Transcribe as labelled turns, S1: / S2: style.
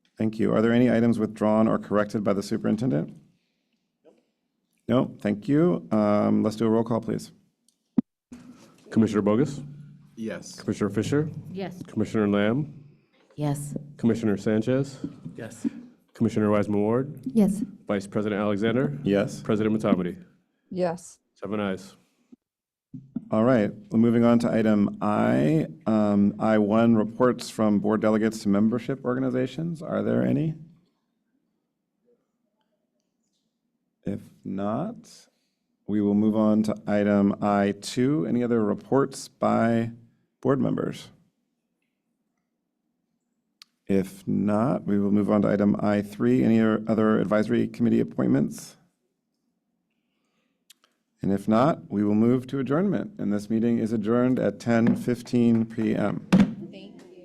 S1: Thank you. Are there any items withdrawn or corrected by the superintendent? No, thank you. Um, Let's do a roll call, please.
S2: Commissioner Bogus,
S3: Yes.
S2: Commissioner Fisher,
S4: Yes.
S2: Commissioner Lamb,
S4: Yes.
S2: Commissioner Sanchez,
S3: Yes.
S2: Commissioner Wiseman Ward,
S4: Yes.
S2: Vice President Alexander,
S1: Yes.
S2: President Matomedy.
S5: Yes.
S2: Seven ayes.
S1: All right, well, moving on to item I. Um, I1, reports from board delegates to membership organizations. Are there any? If not, we will move on to item I2. Any other reports by board members? If not, we will move on to item I3. Any other advisory committee appointments? And if not, we will move to adjournment, and this meeting is adjourned at 10:15 PM.